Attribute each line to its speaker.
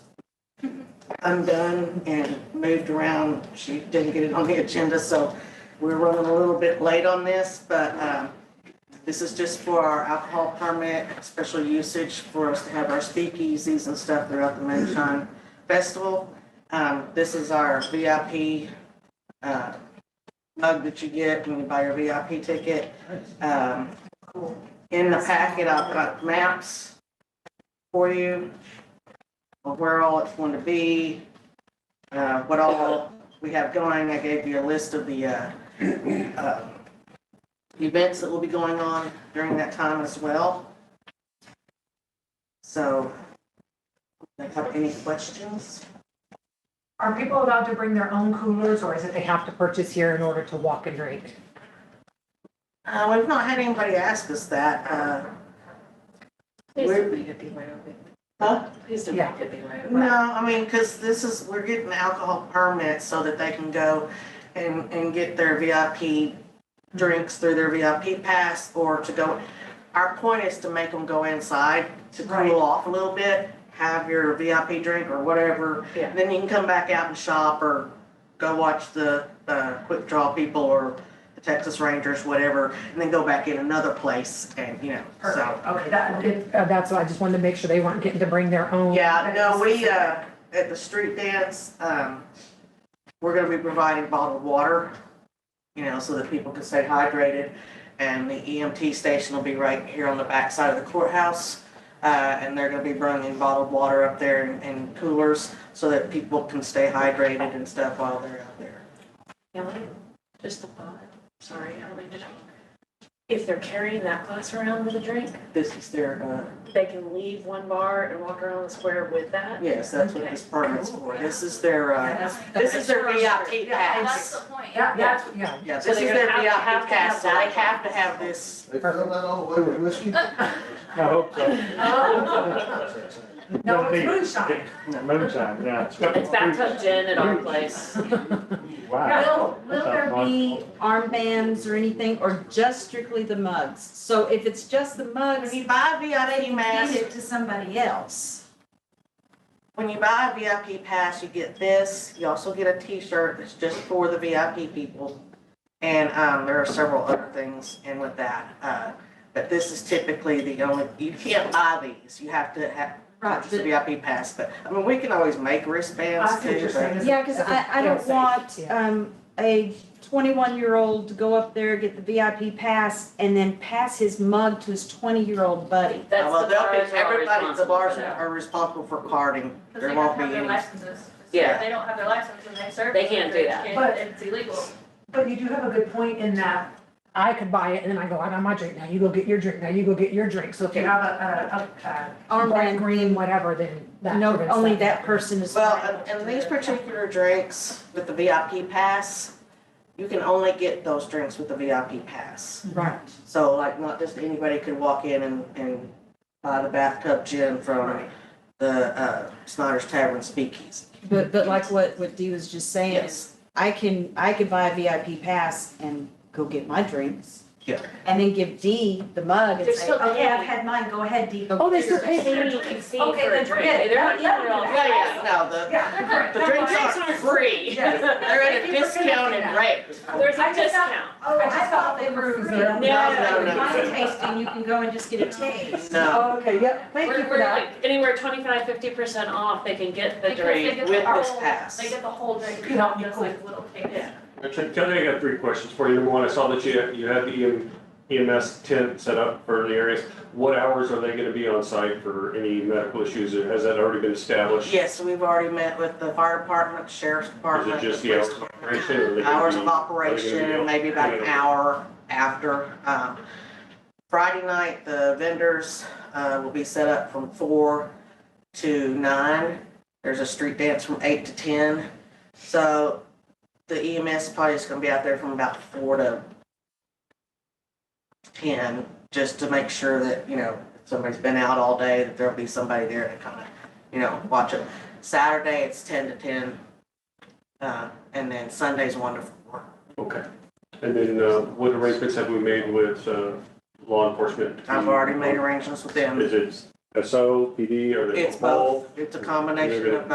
Speaker 1: undone and moved around. She didn't get it on the agenda, so we're running a little bit late on this, but um, this is just for our alcohol permit, special usage for us to have our speakeasies and stuff throughout the Moonshine Festival. Um, This is our VIP uh, mug that you get when you buy your VIP ticket. Um, In the packet, I've got maps for you of where all it's going to be, uh, what all we have going. I gave you a list of the uh, uh, events that will be going on during that time as well. So, do you have any questions?
Speaker 2: Are people allowed to bring their own coolers or is it they have to purchase here in order to walk and drink?
Speaker 1: Uh, We've not had anybody ask us that. uh,
Speaker 3: Please
Speaker 1: Where-
Speaker 3: don't make it be Wyoming.
Speaker 1: Huh?
Speaker 3: Please don't
Speaker 2: Yeah.
Speaker 3: make it be Wyoming.
Speaker 1: No, I mean, because this is, we're getting alcohol permits so that they can go and, and get their VIP drinks through their VIP pass or to go. Our point is to make them go inside to
Speaker 2: Right.
Speaker 1: cool off a little bit, have your VIP drink or whatever.
Speaker 3: Yeah.
Speaker 1: Then you can come back out and shop or go watch the, uh, Quick Draw people or the Texas Rangers, whatever, and then go back in another place and, you know, so.
Speaker 2: Perfect. Okay, that, it- uh, that's what I just wanted to make sure they weren't getting to bring their own.
Speaker 1: Yeah, no, we, uh, at the street dance, um, we're gonna be providing bottled water, you know, so that people can stay hydrated. And the EMT station will be right here on the back side of the courthouse. Uh, and they're gonna be bringing bottled water up there and- and coolers so that people can stay hydrated and stuff while they're out there.
Speaker 3: Kelly, just a thought, sorry, I don't mean to talk. If they're carrying that glass around with a drink,
Speaker 1: This is their, uh,
Speaker 3: they can leave one bar and walk around the square with that?
Speaker 1: yes, that's what this permit's for. This is their, uh,
Speaker 2: That's-
Speaker 1: this is their VIP
Speaker 4: Yeah,
Speaker 1: pass.
Speaker 4: that's the point.
Speaker 2: That, that's, yeah.
Speaker 1: Yeah, this
Speaker 3: So
Speaker 1: is
Speaker 3: they're
Speaker 1: their
Speaker 3: gonna
Speaker 1: VIP
Speaker 3: have to- have to have
Speaker 1: pass, so they
Speaker 3: that.
Speaker 1: have to have this.
Speaker 5: They fill that all the way with whiskey?
Speaker 6: I hope so.
Speaker 2: No, it's moonshine.
Speaker 6: Moonshine, yeah. It's
Speaker 3: It's bathtub gin at our place.
Speaker 6: Wow.
Speaker 7: Will, will there be armbands or anything, or just strictly the mugs? So if it's just the mugs,
Speaker 1: When you buy a
Speaker 7: they
Speaker 1: VIP
Speaker 7: can
Speaker 1: mask,
Speaker 7: hand it to somebody else.
Speaker 1: when you buy a VIP pass, you get this, you also get a t-shirt that's just for the VIP people. And, um, there are several other things in with that, uh, but this is typically the only, you can't buy these, you have to have,
Speaker 7: Right,
Speaker 1: purchase a
Speaker 7: but-
Speaker 1: VIP pass, but, I mean, we can always make
Speaker 2: I
Speaker 1: wristbands
Speaker 2: see what
Speaker 1: too,
Speaker 2: you're
Speaker 1: but.
Speaker 2: saying.
Speaker 7: yeah, cause I, I don't want,
Speaker 2: Yeah.
Speaker 7: um, a twenty-one-year-old to go up there, get the VIP pass, and then pass his mug to his twenty-year-old buddy.
Speaker 3: That's
Speaker 1: Well,
Speaker 3: the
Speaker 1: they'll be-
Speaker 3: bars who
Speaker 1: Everybody,
Speaker 3: are
Speaker 1: at the
Speaker 3: responsible
Speaker 1: bars
Speaker 3: for that.
Speaker 1: are responsible for carding,
Speaker 4: Because
Speaker 1: there
Speaker 4: they
Speaker 1: won't
Speaker 4: don't
Speaker 1: be
Speaker 4: have their
Speaker 1: any.
Speaker 4: licenses.
Speaker 3: Yeah.
Speaker 4: If they don't have their license and they serve.
Speaker 3: They can't do that.
Speaker 4: it,
Speaker 2: But-
Speaker 4: It's illegal.
Speaker 2: But you do have a good point in that I could buy it and then I go, I got my drink now, you go get your drink now, you go get your drink. So if you have a, a, a, a bright
Speaker 7: Armband,
Speaker 2: green, whatever, then that.
Speaker 7: no,
Speaker 2: prevents
Speaker 7: only that person is.
Speaker 1: Well,
Speaker 7: liable
Speaker 1: and- and
Speaker 7: to
Speaker 1: these
Speaker 7: it.
Speaker 1: particular drinks with the VIP pass, you can only get those drinks with the VIP pass.
Speaker 2: Right.
Speaker 1: So like, not just anybody could walk in and, and buy the bathtub gin from the, uh, Snyder's Tavern Speakeasy.
Speaker 7: But, but like what, what Dee was just saying is, I can, I could buy a VIP pass and go get my drinks.
Speaker 1: Yeah.
Speaker 7: And then give Dee the mug and
Speaker 3: They're
Speaker 7: say,
Speaker 3: still
Speaker 7: okay,
Speaker 3: paying.
Speaker 7: I've had mine, go ahead, Dee.
Speaker 2: Oh, they still pay.
Speaker 3: They don't even see
Speaker 2: Okay,
Speaker 3: for a
Speaker 2: then
Speaker 3: drink.
Speaker 2: forget it.
Speaker 3: They're not
Speaker 2: Yeah,
Speaker 3: even
Speaker 2: yeah,
Speaker 3: all-
Speaker 1: Yeah, yeah, no, the,
Speaker 2: Yeah.
Speaker 1: the drinks aren't,
Speaker 3: are free.
Speaker 2: Yes.
Speaker 1: they're at a
Speaker 2: Thank you for
Speaker 1: discounted
Speaker 2: connecting
Speaker 1: rate.
Speaker 3: There's a
Speaker 2: I just thought-
Speaker 3: discount.
Speaker 2: Oh, I thought they were free.
Speaker 7: No,
Speaker 1: no, no.
Speaker 7: Wine tasting, you can go and just get a taste.
Speaker 1: No,
Speaker 2: Okay, yep, thank you
Speaker 3: We're,
Speaker 2: for
Speaker 3: we're
Speaker 2: that.
Speaker 3: like anywhere twenty-five, fifty percent off, they can get the
Speaker 4: Because they
Speaker 3: drink.
Speaker 4: get
Speaker 1: with
Speaker 4: the
Speaker 1: this
Speaker 4: whole-
Speaker 1: pass.
Speaker 4: They get the whole drink.
Speaker 2: You know,
Speaker 4: Just like little kids.
Speaker 3: Yeah.
Speaker 6: Kelly, I got three questions for you. Number one, I saw that you, you had the E EM EMS tent set up for the areas. What hours are they gonna be on site for any medical issues? Or Has that already been established?
Speaker 1: yes, we've already met with the fire department, sheriff's
Speaker 6: Is
Speaker 1: department.
Speaker 6: it just the
Speaker 1: police
Speaker 6: hours of operation? or are they gonna
Speaker 1: hours of
Speaker 6: be- are they gonna be
Speaker 1: operation,
Speaker 6: on-
Speaker 1: maybe about an
Speaker 6: Okay.
Speaker 1: hour after. Um, Friday night, the vendors uh, will be set up from four to nine. There's a street dance from eight to ten. So the EMS probably is gonna be out there from about four to ten, just to make sure that, you know, if somebody's been out all day, that there'll be somebody there to kind of, you know, watch it. Saturday, it's ten to ten. Uh, and then Sunday's wonderful.
Speaker 6: Okay. And then, uh, what arrangements have we made with, uh, law enforcement?
Speaker 1: I've already made arrangements with them.
Speaker 6: Is it SO, PD, or they
Speaker 1: It's
Speaker 6: both?
Speaker 1: both, it's a combination
Speaker 6: You're
Speaker 1: of
Speaker 6: good.